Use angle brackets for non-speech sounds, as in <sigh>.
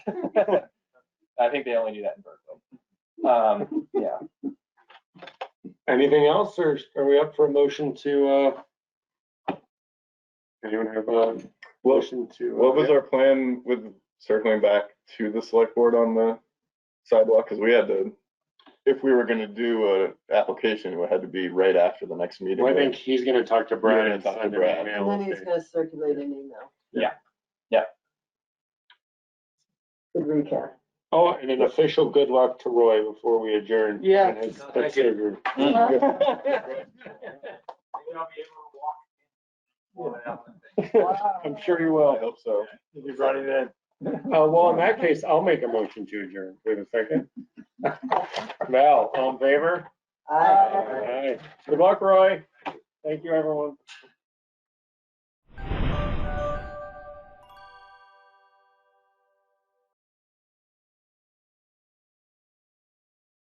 I think they only do that in Berkeley. Um, yeah, Anything else, or are we up for a motion to, uh, anyone have a motion to? uh, What was our plan with circling back to the select board on the sidewalk? Because we had to, if we were gonna do a application, it had to be right after the next meeting. Well, I think he's gonna talk to You're Brad gonna and talk to send him Brad. an And email. then he's gonna circulate an email. Yeah. Yeah. Good recap. Oh, and an official good luck to Roy before we adjourn. Yeah. and his hip surgery. Mm. <laughs> I'm sure you I will, hope so. if you brought it in. Uh, well, in that case, I'll make a motion to adjourn. Wait a second. <laughs> Val, all in favor? Aye. Aye. Good luck, Roy. Thank you, everyone.